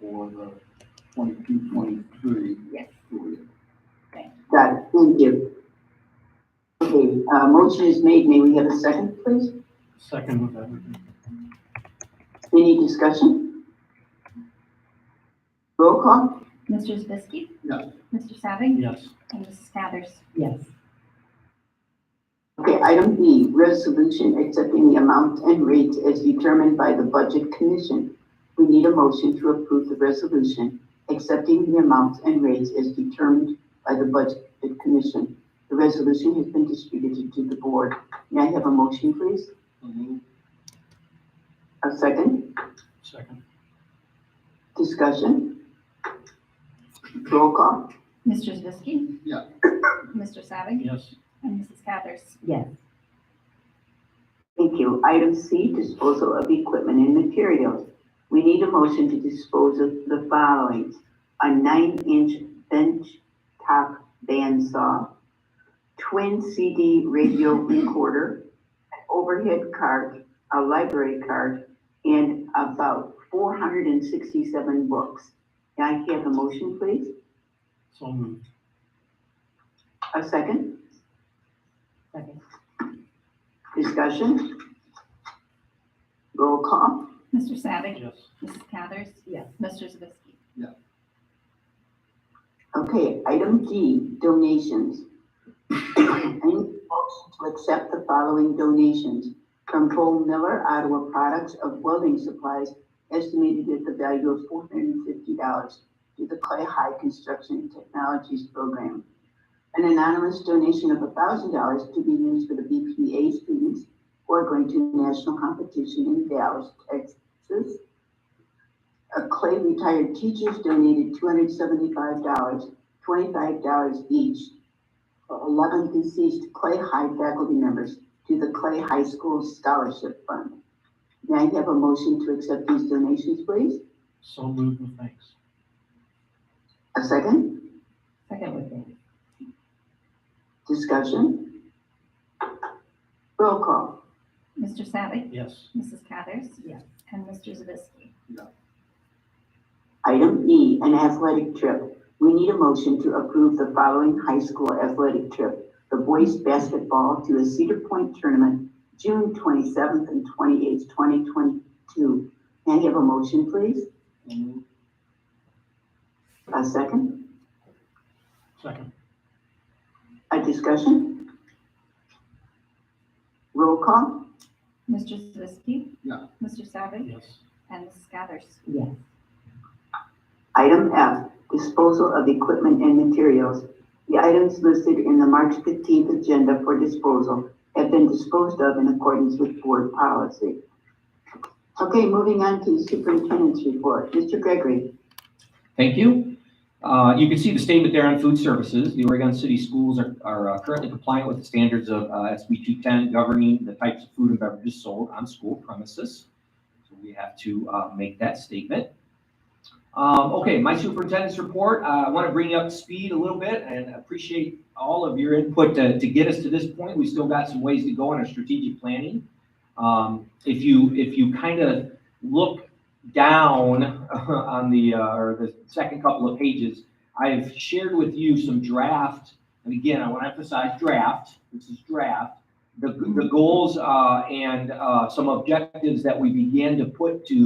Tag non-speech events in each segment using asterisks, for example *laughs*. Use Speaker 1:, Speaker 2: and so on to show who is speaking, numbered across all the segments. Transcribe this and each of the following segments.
Speaker 1: for the twenty-two, twenty-three
Speaker 2: Yes.
Speaker 1: period.
Speaker 3: Got it, thank you. Okay, uh, motion is made, may we have a second, please?
Speaker 1: Second with everything.
Speaker 3: Any discussion? Roll call?
Speaker 2: Mr. Zavisky?
Speaker 1: Yes.
Speaker 2: Mr. Savick?
Speaker 1: Yes.
Speaker 2: And Mrs. Cathers?
Speaker 4: yes,
Speaker 3: Okay, item B, resolution accepting the amount and rates as determined by the Budget Commission. We need a motion to approve the resolution accepting the amounts and rates as determined by the Budget Commission. The resolution has been distributed to the board. May I have a motion, please? A second?
Speaker 1: Second.
Speaker 3: Discussion? Roll call?
Speaker 2: Mr. Zavisky?
Speaker 1: Yeah.
Speaker 2: Mr. Savick?
Speaker 1: Yes.
Speaker 2: And Mrs. Cathers?
Speaker 4: yes,
Speaker 3: Thank you. Item C, disposal of equipment and materials. We need a motion to dispose of the following. A nine-inch bench top bandsaw, twin CD radio recorder, an overhead cart, a library cart, and about four hundred and sixty-seven books. Can I have a motion, please?
Speaker 1: So moved.
Speaker 3: A second?
Speaker 4: second,
Speaker 3: Discussion? Roll call?
Speaker 2: Mr. Savick?
Speaker 1: Yes.
Speaker 2: Mrs. Cathers?
Speaker 4: yes,
Speaker 2: Mr. Zavisky?
Speaker 3: Okay, item D, donations. *coughs* I need a motion to accept the following donations from Paul Miller Ottawa Products of Welding Supplies, estimated at the value of four hundred and fifty dollars to the Clay High Construction Technologies Program. An anonymous donation of thousand dollars to be used for the BPA students who are going to national competition in Dallas, Texas. A Clay retired teachers donated two hundred seventy-five dollars, twenty-five dollars each. for Eleven deceased Clay High faculty members to the Clay High School Scholarship Fund. May I have a motion to accept these donations, please?
Speaker 1: So moved with thanks.
Speaker 3: A second,
Speaker 4: second with thanks,
Speaker 3: discussion? Roll call.
Speaker 2: Mr. Savick?
Speaker 1: Yes.
Speaker 2: Mrs. Cathers?
Speaker 4: Yes.
Speaker 2: And Mr. Zavisky?
Speaker 3: Item E, an athletic trip. We need a motion to approve the following high school athletic trip. The boys basketball to a Cedar Point tournament, June twenty-seventh and twenty-eighth, twenty twenty-two. Can I have a motion, please? A second?
Speaker 1: Second.
Speaker 3: A discussion? Roll call?
Speaker 2: Mr. Zavisky?
Speaker 1: Yeah.
Speaker 2: Mr. Savick?
Speaker 1: Yes.
Speaker 2: And Mrs. Cathers?
Speaker 4: yes,
Speaker 3: Item F, disposal of equipment and materials. The items listed in the March 15th agenda for disposal have been disposed of in accordance with board policy. Okay, moving on to the superintendent's report. Mr. Gregory,
Speaker 5: Thank you. Uh, You can see the statement there on food services. The Oregon City Schools are- are uh, currently compliant with the standards of uh, SB 210 governing the types of food and beverages sold on school premises. So we have to uh, make that statement. Um, Okay, my superintendent's report, uh, I want to bring you up to speed a little bit and appreciate all of your input to to get us to this point. We still got some ways to go in our strategic planning. Um, If you, if you kind of look down *laughs* on the, uh, or the second couple of pages, I have shared with you some draft, and again, I want to emphasize draft, this is draft, the, the goals, uh, and, uh, some objectives that we began to put to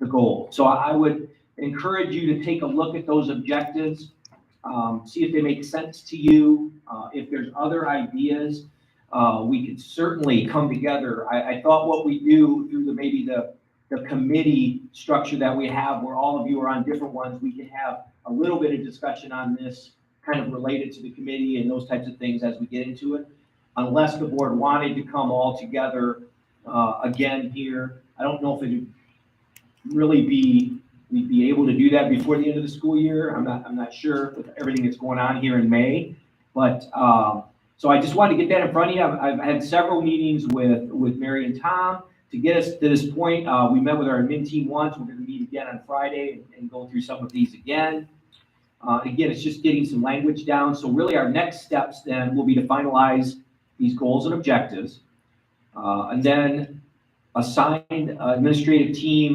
Speaker 5: the goal. So I would encourage you to take a look at those objectives, um, see if they make sense to you, uh, if there's other ideas, uh, we could certainly come together. I, I thought what we do through the, maybe the, the committee structure that we have, where all of you are on different ones, we can have a little bit of discussion on this, kind of related to the committee and those types of things as we get into it. Unless the board wanted to come all together, uh, again here, I don't know if it'd really be, we'd be able to do that before the end of the school year. I'm not, I'm not sure with everything that's going on here in May. But, um, so I just wanted to get that in front of you. I've, I've had several meetings with, with Mary and Tom to get us to this point, uh, we met with our admin team once, we're gonna meet again on Friday and- and go through some of these again. Uh, again, it's just getting some language down, so really our next steps then will be to finalize these goals and objectives. Uh, and then assign administrative team